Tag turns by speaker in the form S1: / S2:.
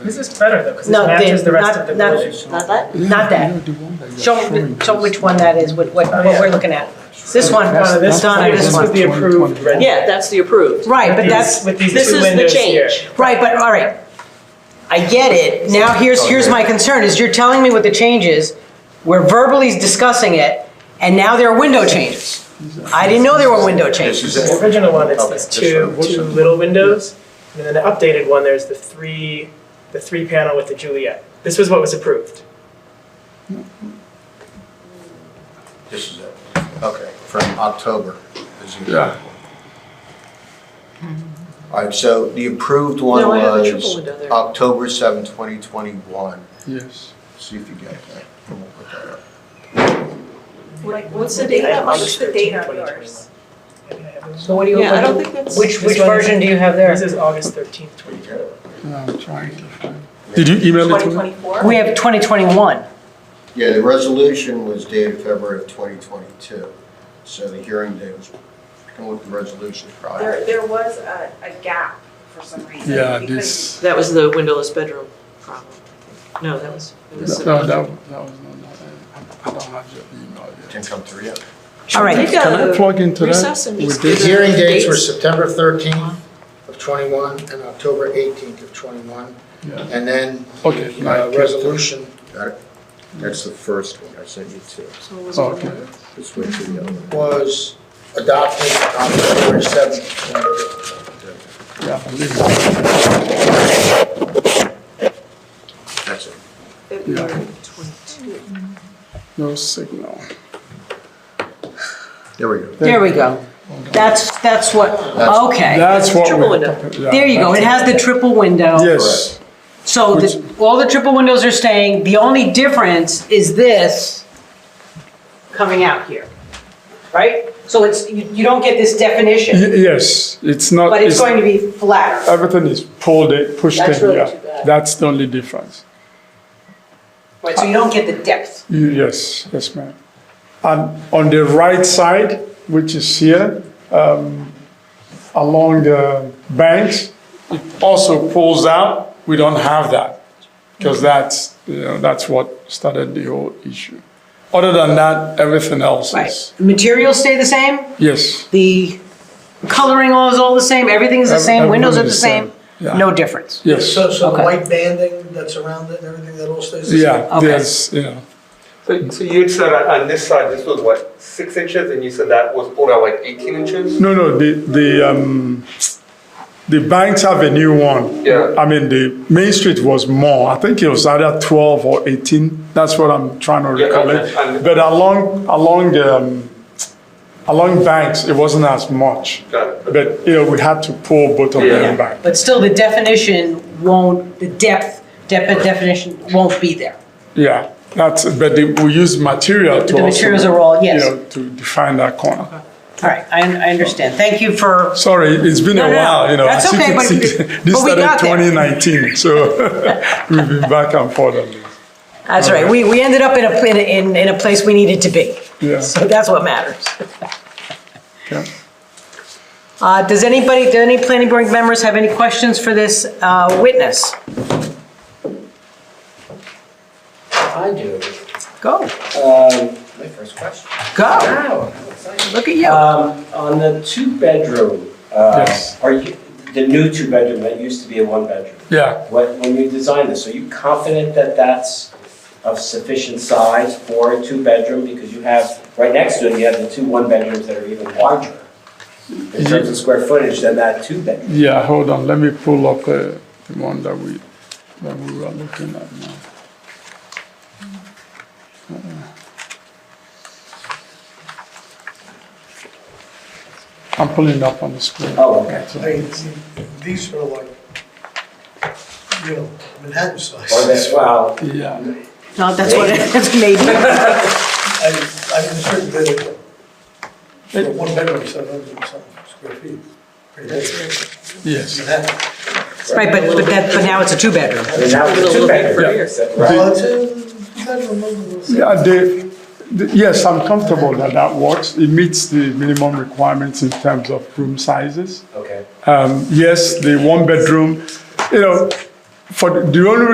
S1: This is better though, because it
S2: No,
S1: matches
S2: Dan,
S1: the rest
S2: not-
S1: of the
S2: not-
S1: village.
S3: Not that?
S2: Not that. Show, show which one that is, what, what what we're looking at. This one,
S1: Uh, this,
S2: Donna, this
S1: this was
S2: one.
S1: the approved red.
S3: Yeah, that's the approved.
S2: Right, but
S1: These-
S2: that's,
S1: With these
S3: This
S1: two
S3: is the
S1: windows here.
S3: change.
S2: right, but, all right. I get it. Now, here's, here's my concern, is you're telling me what the change is. We're verbally discussing it, and now there are window changes. I didn't know there were window
S4: This
S2: changes.
S4: is
S1: The
S4: it.
S1: original one, it's
S4: Okay,
S1: these
S4: this
S1: two,
S4: one, this
S1: two
S4: one.
S1: little windows, and then the updated one, there's the three, the three panel with the Juliet. This was what was approved.
S4: This is it. Okay, from October. is the-
S5: Yeah.
S4: All right, so the approved one
S3: No, I have a triple
S4: was
S3: window there.
S4: October 7, 2021.
S5: Yes.
S4: See if you get that. And we'll put that up.
S6: Like, what's the date on, what's the date on yours?
S1: Maybe I have this
S2: So what do you,
S3: Yeah, I don't think that's.
S2: which,
S1: This
S2: which
S1: one is-
S2: version do you have
S1: This
S2: there?
S1: is August thirteenth, twenty twenty.
S5: Yeah, I'm trying to find. Did you email it to me?
S6: 2024?
S2: We have 2021.
S4: Yeah, the resolution was dated February of 2022, so the hearing date was, I can look at the resolution
S6: There,
S4: prior.
S6: there was a, a gap for some reason.
S5: Yeah,
S6: because-
S5: this,
S3: That was the windowless bedroom problem. No, that was, it
S5: no,
S3: was.
S5: that, that was, that was not, not- I I don't have your email yet.
S4: Didn't come through yet.
S2: All right.
S3: Take
S5: Can I
S3: a
S5: plug into
S3: recess
S5: that?
S3: and
S5: with
S3: just
S7: The
S3: give
S5: this?
S3: them
S7: hearing dates were
S3: dates.
S7: September 13th of 21 and October 18th of 21.
S5: Yeah.
S7: And then
S5: Okay,
S7: the
S5: now I
S7: uh,
S5: can't-
S7: resolution,
S4: Got it? That's the first one I sent you to.
S3: So it was
S5: Oh, okay.
S3: another-
S4: Let's wait till the other one.
S7: was adopted on February 7th.
S5: Yeah, I believe it.
S4: That's it.
S3: February 22.
S5: No signal.
S4: There we go.
S2: There we go. That's, that's what,
S4: That's-
S2: okay.
S5: That's what
S3: Triple
S5: we're
S3: window.
S5: talking. yeah,
S2: There you go. It
S5: that's-
S2: has the triple window.
S5: Yes,
S2: So the, all the triple windows are staying, the only difference is this coming out here, right? So it's, you, you don't get this definition,
S5: Y- yes, it's not,
S2: but it's
S5: it's- Uh,
S2: going to be flatter.
S5: everything is pulled, in, pushed in,
S2: That's really too
S5: yeah.
S2: bad.
S5: That's the only difference.
S2: Right, so you don't get the depth.
S5: Y- Yes, yes, ma'am. And on the right side, which is here, um, along the banks, it also pulls out. We don't have that because that's, you know, that's what started the whole issue. Other than that, everything else is,
S2: Materials stay the same,
S5: yes.
S2: the coloring all is all the same, everything's the
S5: Ev-
S2: same, windows are
S5: everything
S2: the
S5: is
S2: same,
S5: Yeah.
S2: no difference.
S5: Yes,
S7: so
S2: Okay. white
S7: banding that's around it and everything, that all stays
S5: yeah,
S2: Okay.
S5: there's, you know,
S8: So, so you had said uh, on on this side, this was what, six inches, and you said that was pulled out like 18 inches?
S5: no, no, the, the, um, the banks have a new one.
S8: Yeah.
S5: I mean, the Main Street was more, I think it was either twelve or eighteen, that's what I'm trying to
S8: Yeah,
S5: recollect.
S8: and- and-
S5: But along, along, the, um, along banks, it wasn't as much.
S8: Got it.
S5: But, you know, we had to pull both of
S8: Yeah.
S5: them back.
S2: But still, the definition won't, the depth, depth definition won't be there.
S5: Yeah, that's, but the- we used material to
S2: The
S5: also,
S2: materials are all- yes.
S5: You know, to define that corner.
S2: All right, I, I understand, thank you for
S5: Sorry, it's been
S2: No,
S5: a
S2: no, no.
S5: while, you know.
S2: That's
S5: as you
S2: okay,
S5: can
S2: but-
S5: see,
S2: but we
S5: This started
S2: got there.
S5: 2019, so we've been back and forth on this.
S2: That's right. We, we ended up in a, in a- in, in a place we needed to be.
S5: Yeah.
S2: So that's what matters.
S5: Okay.
S2: Uh, does anybody, do any planning board members have any questions for this, uh, witness?
S9: I do.
S2: Go,
S9: Um, My first question.
S2: go.
S9: Wow.
S2: Look at you.
S9: Um, On the two-bedroom, uh,
S5: Yes.
S9: are you, the new two-bedroom, that used to be a one-bedroom.
S5: Yeah,
S9: When when you designed this, are you confident that that's of sufficient size for a two-bedroom? Because you have, right next to it, you have the two one-bedrooms that are even larger in terms of square footage than that two-bedroom.
S5: yeah, hold on, let me pull up uh, the one that we, that we were looking at now. Uh, I'm pulling up on the screen.
S9: Oh, okay.
S7: These are like, you know, Manhattan
S9: Or
S7: size.
S9: that, wow,
S5: Yeah,
S2: No, that's what it's made.
S7: I'm certain that for one bedroom, 700 square feet.
S5: yes.
S2: Right, but, but that, but now it's a two-bedroom.
S9: I mean, that was
S3: A
S9: a
S3: little bit for
S9: two-bedroom.
S3: here.
S9: Right.
S5: Yeah, the, the- yes, I'm comfortable that that works. It meets the minimum requirements in terms of room sizes.
S9: Okay.
S5: Um, yes, the one bedroom, you know, for, the- the only